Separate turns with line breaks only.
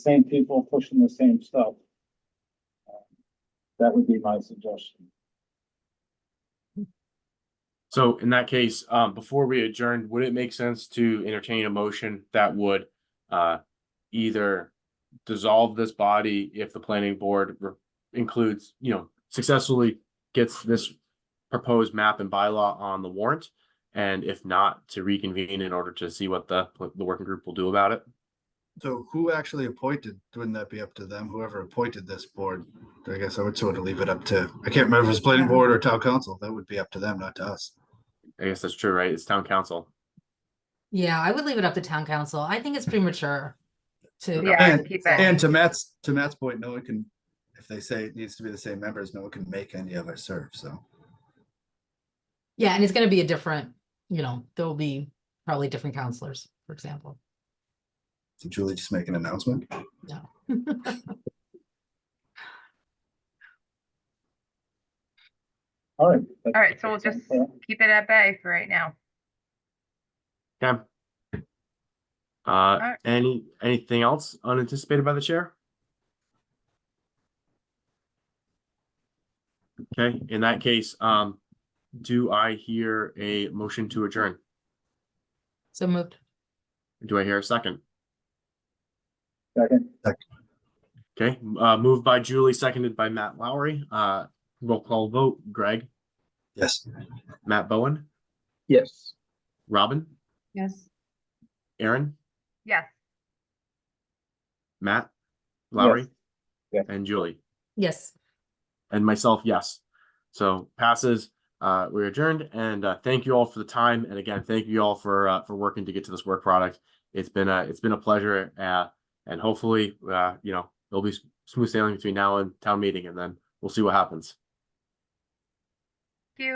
same people pushing the same stuff. That would be my suggestion.
So in that case, um, before we adjourn, would it make sense to entertain a motion that would uh either dissolve this body if the planning board re- includes, you know, successfully gets this proposed map and bylaw on the warrant? And if not, to reconvene in order to see what the the working group will do about it?
So who actually appointed, wouldn't that be up to them, whoever appointed this board? I guess I would sort of leave it up to, I can't remember if it's planning board or town council, that would be up to them, not to us.
I guess that's true, right? It's town council.
Yeah, I would leave it up to town council. I think it's premature to.
Yeah,
And-
to keep
And
it.
to Matt's, to Matt's point, no one can, if they say it needs to be the same members, no one can make any of us serve, so.
Yeah, and it's gonna be a different, you know, there will be probably different counselors, for example.
Did Julie just make an announcement?
All right.
All right, so we'll just keep it at bay for right now.
Okay. Uh, any, anything else unanticipated by the chair? Okay, in that case, um, do I hear a motion to adjourn?
So moved.
Do I hear a second?
Second,
Okay, uh, moved by Julie, seconded by Matt Lowry. Uh, roll call vote, Greg,
Yes.
Matt Bowen,
Yes.
Robin,
Yes.
Aaron,
Yes.
Matt, Lowry,
Yes.
and Julie.
Yes.
and myself, yes. So passes. Uh, we're adjourned, and uh, thank you all for the time. And again, thank you all for uh, for working to get to this work product. It's been a it's been a pleasure, uh, and hopefully, uh, you know, it'll be s- smooth sailing between now and town meeting, and then we'll see what happens.